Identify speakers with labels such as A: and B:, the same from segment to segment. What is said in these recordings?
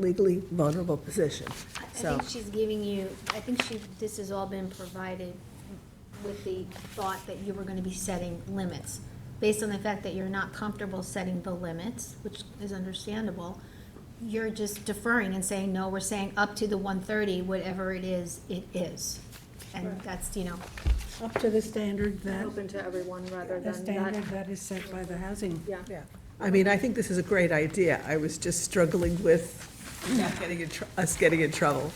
A: legally vulnerable position.
B: I I
A: So,
B: think she's giving you, I think she, this has all been provided with the thought that you were gonna be setting limits. Based on the fact that you're not comfortable setting the limits, which is understandable, you're just deferring and saying, no, we're saying up to the one thirty, whatever it is, it is. And
C: Right.
B: that's, you know,
C: up to the standard that,
D: open to everyone rather
C: the
D: than
C: standard
D: that,
C: that is set by the housing.
D: yeah.
A: yeah. I mean, I think this is a great idea. I was just struggling with not getting in tr- us getting in trouble.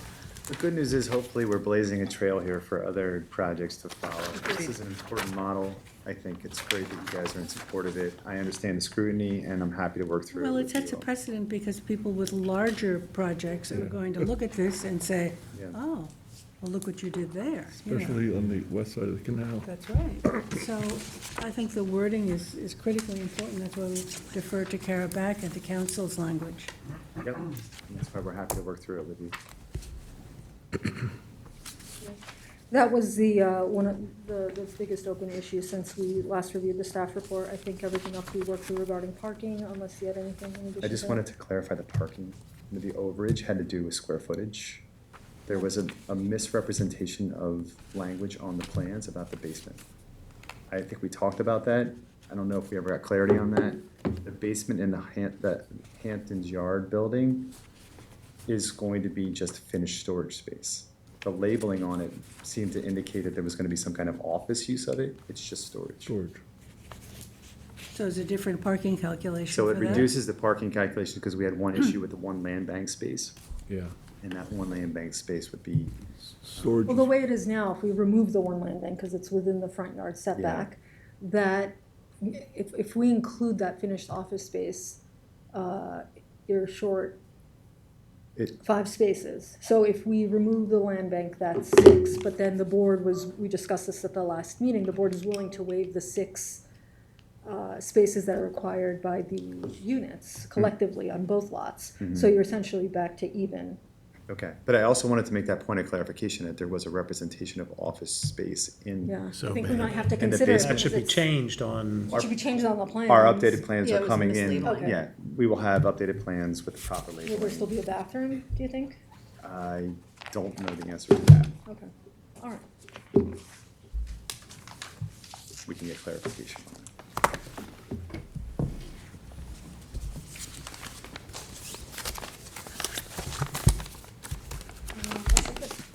E: The good news is hopefully we're blazing a trail here for other projects to follow. This is an important model. I think it's great that you guys are in support of it. I understand the scrutiny and I'm happy to work through it
C: Well, it
E: with
C: sets
E: you
C: a precedent because people with larger projects are going to look at this and say,
E: Yeah.
C: oh, well, look what you did there. you know.
F: Especially on the west side of the canal.
C: That's right. So I think the wording is, is critically important. That's why we defer to Kara back and to council's language.
E: all. Yep, and that's why we're happy to work through it with you.
D: That was the, uh, one of the, the biggest open issue since we last reviewed the staff report. I think everything else we worked through regarding parking, unless you had anything in addition.
E: I just
D: to-
E: wanted to clarify the parking. The overage had to do with square footage. There was a, a misrepresentation of language on the plans about the basement. I think we talked about that. I don't know if we ever got clarity on that. The basement in the Han, the Hampton's Yard building is going to be just finished storage space. The labeling on it seemed to indicate that there was gonna be some kind of office use of it. It's just storage.
F: George,
C: So it's a different parking calculation
E: So
C: for
E: it
C: that.
E: reduces the parking calculation because we had one issue with the one land bank space.
F: yeah.
E: And that one land bank space would be,
F: Storage,
D: Well, the way it is now, if we remove the one landing, because it's within the front yard setback, that, if, if we include that finished office space, uh, you're short
E: It-
D: five spaces. So if we remove the land bank, that's six, but then the board was, we discussed this at the last meeting, the board is willing to waive the six uh, spaces that are required by the units
E: Mm-hmm.
D: collectively on both lots. So you're essentially back to even.
E: okay. But I also wanted to make that point of clarification that there was a representation of office space in,
D: Yeah, I
G: So
D: think we might have to
E: the
D: consider. it
E: basement-
G: That should be
D: because it's-
G: changed on,
D: It should be changed on the plan.
E: our updated plans
H: Yeah, it
E: are
H: was
E: coming in.
H: mislabeling.
E: Yeah, we will have updated plans with the proper
D: Will there still
E: labeling.
D: be a bathroom, do you think?
E: I don't know the answer to that.
D: Okay, all right.
E: We can get clarification on that.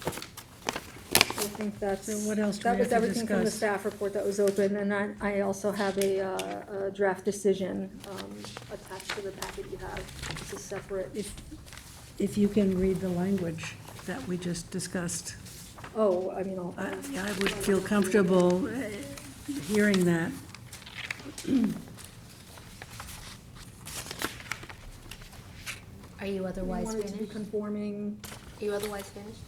D: I think that's.
C: So what else do we
D: That
C: have
D: was
C: to
D: everything from the
C: discuss?
D: staff report that was open, and I, I also have a, uh, a draft decision, um, attached to the packet you have. It's a separate,
C: If, if you can read the language that we just discussed.
D: oh, I mean, I'll.
C: I I would feel comfortable eh, hearing that.
B: are you otherwise
D: wanted to be
B: finished?
D: conforming,
B: Are you otherwise finished?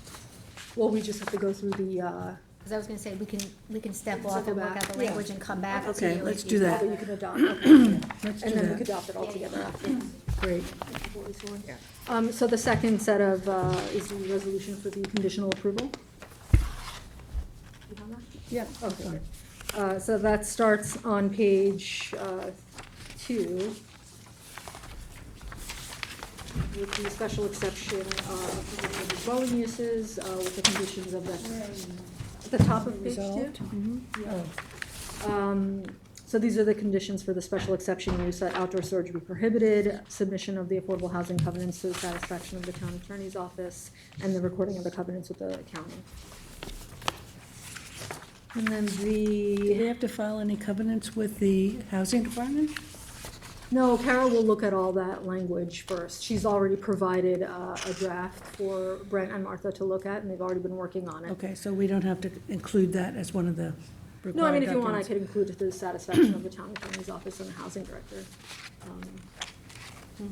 D: well, we just have to go through the, uh,
B: Cause I was gonna say, we can, we can step
D: Circle
B: off and work
D: back,
B: out the
D: yeah.
B: language and come back to
C: Okay,
B: you
C: let's
B: if
C: do
B: you-
C: that.
D: that you can adopt, okay.
C: Let's do
D: And then we could
C: that.
D: adopt it all together after.
C: Great.
D: Um, so the second set of, uh, is the resolution for the conditional approval? Yeah, okay. Uh, so that starts on page, uh, two. With the special exception, uh, for the dwelling uses, uh, with the conditions of the, at the top of page two. Mm-hmm.
C: Resolved. Mhm.
D: Um, So these are the conditions for the special exception use, that outdoor storage be prohibited, submission of the affordable housing covenants to the satisfaction of the town attorney's office, and the recording of the covenants with the county. And then
C: Do they
D: the,
C: have to file any covenants with the housing department?
D: no, Carol will look at all that language first. She's already provided uh, a draft for Brent and Martha to look at, and they've already been working on it.
C: Okay, so we don't have to include that as one of the required
D: No, I mean, if you want, I
C: documents.
D: could include it to the satisfaction of the town attorney's office and the housing director. Um,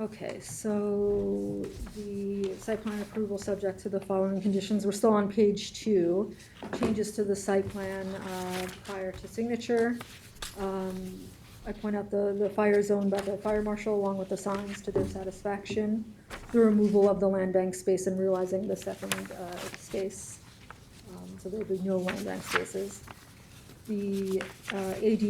D: Okay, so the site plan approval subject to the following conditions, we're still on page two. Changes to the site plan uh, prior to signature. Um, I point out the, the fire zone by the fire marshal along with the signs to their satisfaction. The removal of the land bank space and realizing the second uh, space. Um, So there'll be no land bank spaces the uh, ADU